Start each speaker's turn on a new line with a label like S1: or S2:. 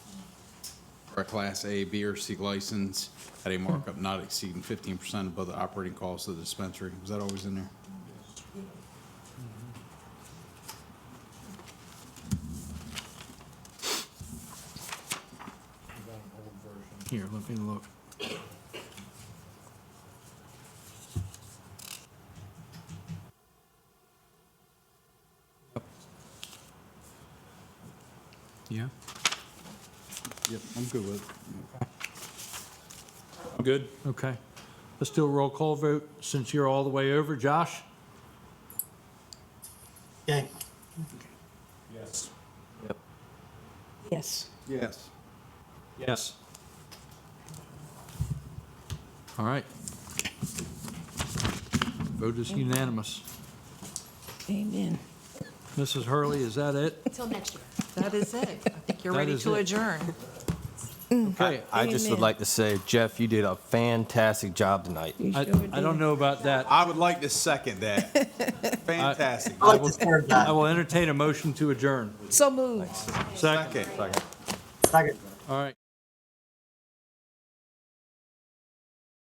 S1: for a Class A, B, or C license at a markup not exceeding 15% above the operating cost of the dispensary. Was that always in there?
S2: Here, let me look. Yeah,
S1: Yep, I'm good with it.
S3: I'm good.
S2: okay. Let's do a roll call vote since you're all the way over. Josh?
S4: Yay.
S3: Yes.
S5: Yes.
S1: Yes.
S2: Yes. All right. Vote is unanimous.
S5: Amen.
S2: Mrs. Hurley, is that it?
S6: Till next year.
S7: That is it. I think you're
S2: That
S7: ready
S2: is
S7: to
S2: it.
S7: adjourn.
S2: Okay.
S8: I just would
S5: Amen.
S8: like to say, Jeff, you did a fantastic job tonight.
S5: You
S2: I,
S5: sure
S2: I don't
S5: did.
S2: know about that.
S1: I would like to second that. Fantastic.
S4: I like the third
S2: I
S4: guy.
S2: will entertain a motion to adjourn.
S5: So moved.
S2: Second,
S1: Second.
S4: Second.
S2: all right.